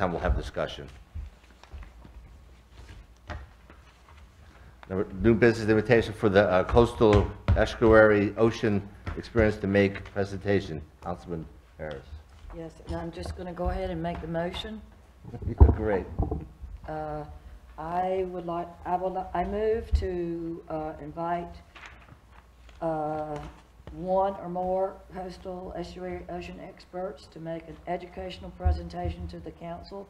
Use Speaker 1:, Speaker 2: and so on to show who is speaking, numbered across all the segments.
Speaker 1: Time we'll have discussion. Number- New business invitation for the uh, coastal estuary ocean experience to make presentation, Councilman Harris.
Speaker 2: Yes, and I'm just going to go ahead and make the motion.
Speaker 1: Great.
Speaker 2: Uh, I would like, I will, li- I move to uh, invite uh, one or more coastal estuary ocean experts to make an educational presentation to the council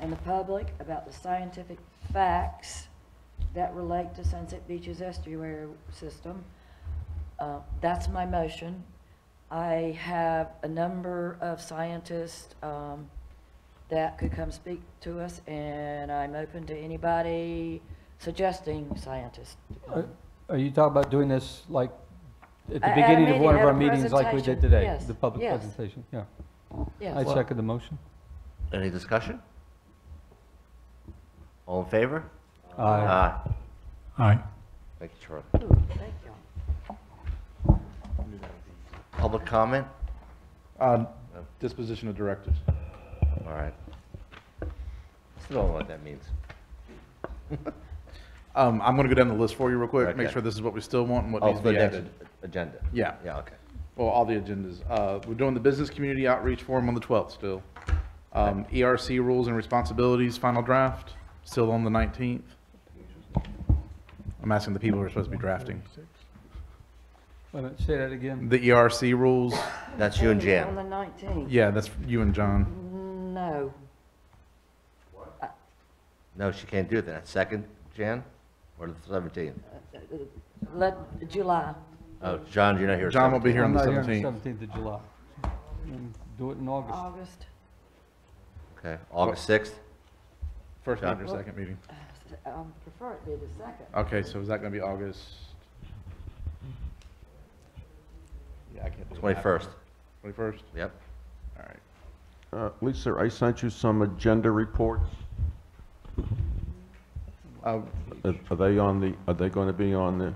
Speaker 2: and the public about the scientific facts that relate to Sunset Beach's estuary system. Uh, That's my motion. I have a number of scientists um, that could come speak to us, and I'm open to anybody suggesting scientists.
Speaker 3: Are are you talking about doing this like at
Speaker 2: At-
Speaker 3: the
Speaker 2: at a
Speaker 3: beginning of
Speaker 2: meeting,
Speaker 3: one of
Speaker 2: at a
Speaker 3: our meetings like we
Speaker 2: presentation,
Speaker 3: did today?
Speaker 2: yes,
Speaker 3: The public
Speaker 2: yes.
Speaker 3: presentation, yeah. I
Speaker 2: Yes,
Speaker 3: second the motion.
Speaker 1: Any discussion? All in favor?
Speaker 4: Uh,
Speaker 3: Aye.
Speaker 5: Aye.
Speaker 1: Thank you, Charlie.
Speaker 2: Ooh, thank you.
Speaker 1: Public comment?
Speaker 4: On Uh, disposition of directives.
Speaker 1: All right. Still don't know what that means.
Speaker 4: Um, I'm gonna go down the list for you real quick, make
Speaker 1: Okay.
Speaker 4: sure this is what we still want and what
Speaker 1: Oh,
Speaker 4: needs
Speaker 1: for
Speaker 4: to
Speaker 1: the
Speaker 4: be
Speaker 1: next
Speaker 4: added.
Speaker 1: agenda?
Speaker 4: Yeah.
Speaker 1: Yeah, okay.
Speaker 4: Well, all the agendas. Uh, we're doing the business community outreach forum on the twelfth still. Um, ERC rules and responsibilities, final draft, still on the nineteenth. I'm asking the people who are supposed to be drafting.
Speaker 3: Wait a minute, say that again.
Speaker 4: The ERC rules,
Speaker 1: That's you and
Speaker 2: On the
Speaker 1: Jan.
Speaker 2: 19th?
Speaker 4: yeah, that's you and John.
Speaker 2: No.
Speaker 1: No, she can't do that. Second, Jan, or the 17th?
Speaker 2: Let, July.
Speaker 1: Oh, John, you're not here.
Speaker 4: John will be
Speaker 1: 17th.
Speaker 4: here on
Speaker 3: I'm
Speaker 4: the
Speaker 3: not here on the
Speaker 4: seventeenth.
Speaker 3: 17th of July. Mm, Do it in August.
Speaker 2: August.
Speaker 1: Okay, August 6th?
Speaker 4: First
Speaker 1: John.
Speaker 4: meeting or second meeting?
Speaker 2: I Uh, um, prefer it be the second.
Speaker 4: Okay, so is that gonna be August? Yeah, I can't. do it.
Speaker 1: 21st,
Speaker 4: Twenty-first?
Speaker 1: yep.
Speaker 4: All right.
Speaker 6: Uh, Lisa, I sent you some agenda reports.
Speaker 4: Uh,
Speaker 6: Are are they on the, are they going to be on the,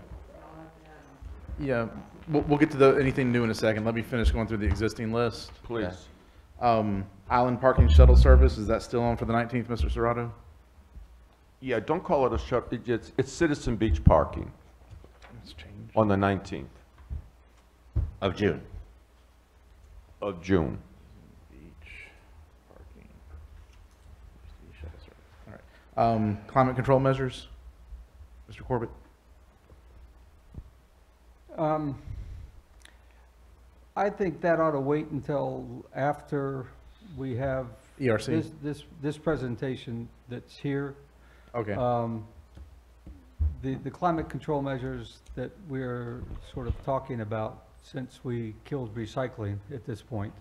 Speaker 4: Yeah, we'll, we'll get to the, anything new in a second. Let me finish going through the existing list.
Speaker 6: please?
Speaker 4: Um, Island Parking Shuttle Service, is that still on for the 19th, Mr. Serrato?
Speaker 6: Yeah, don't call it a shut, it- it's, it's Citizen Beach Parking
Speaker 4: It's changed.
Speaker 6: on the 19th
Speaker 1: Of June.
Speaker 6: of June.
Speaker 4: Beach Parking. Shuttle Service, all right. Um, climate control measures, Mr. Corbett?
Speaker 3: Um, I think that ought to wait until after we have this,
Speaker 4: ERC?
Speaker 3: this, this presentation that's here.
Speaker 4: Okay,
Speaker 3: Um, The, the climate control measures that we're sort of talking about since we killed recycling at this point.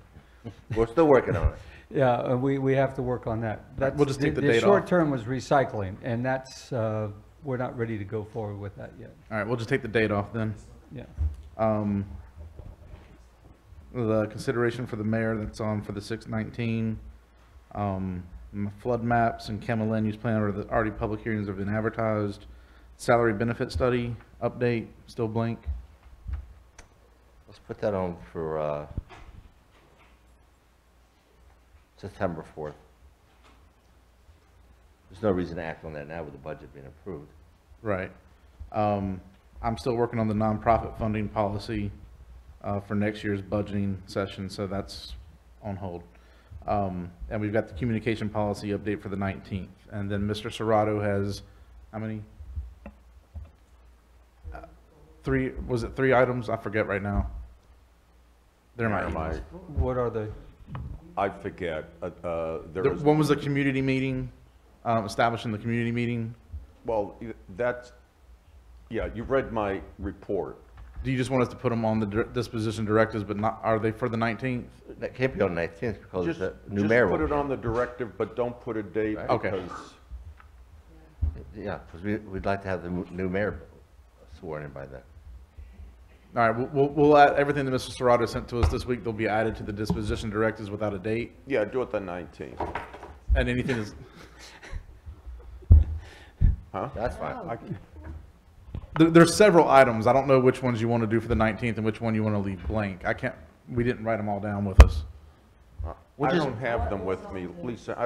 Speaker 1: We're still working on it.
Speaker 3: Yeah, uh, we, we have to work on that. That's-
Speaker 4: we'll just take the date
Speaker 3: The
Speaker 4: off.
Speaker 3: short term was recycling, and that's, uh, we're not ready to go forward with that yet.
Speaker 4: all right, we'll just take the date off then.
Speaker 3: Yeah.
Speaker 4: Um, the consideration for the mayor that's on for the six nineteen, um, m- flood maps and Camelot land use plan are the, already public hearings have been advertised. Salary benefit study update, still blank.
Speaker 1: Let's put that on for, uh, September 4th. There's no reason to act on that now with the budget being approved.
Speaker 4: Right. Um, I'm still working on the nonprofit funding policy, uh, for next year's budgeting session, so that's on hold. Um, and we've got the communication policy update for the nineteenth, and then Mr. Serrato has, how many? Uh, Three, was it three items? I forget right now. There
Speaker 6: Am
Speaker 4: might be.
Speaker 6: I-
Speaker 3: What are the,
Speaker 6: I forget, Uh, uh, there is,
Speaker 4: One was the community meeting, um, establishing the community meeting.
Speaker 6: well, e- that's, yeah, you read my report.
Speaker 4: Do you just want us to put them on the dir- disposition directives, but not, are they for the nineteenth?
Speaker 1: That can't be on the 19th
Speaker 4: Oh,
Speaker 1: because
Speaker 6: Just,
Speaker 1: the new
Speaker 6: just
Speaker 1: mayor
Speaker 6: put
Speaker 1: will
Speaker 6: it on the directive, but don't put a date
Speaker 4: Okay.
Speaker 6: because
Speaker 1: Yeah, because we, we'd like to have the mo- new mayor sworn in by then.
Speaker 4: All right, we'll- we'll, we'll add, everything that Mr. Serrato sent to us this week, they'll be added to the disposition directives without a date,
Speaker 6: Yeah, do it the 19th.
Speaker 4: and anything is,
Speaker 1: That's fine.
Speaker 6: I-
Speaker 4: there, there's several items, I don't know which ones you want to do for the 19th and which one you want to leave blank, I can't, we didn't write them all down with us.
Speaker 6: I don't have them with me, Lisa, I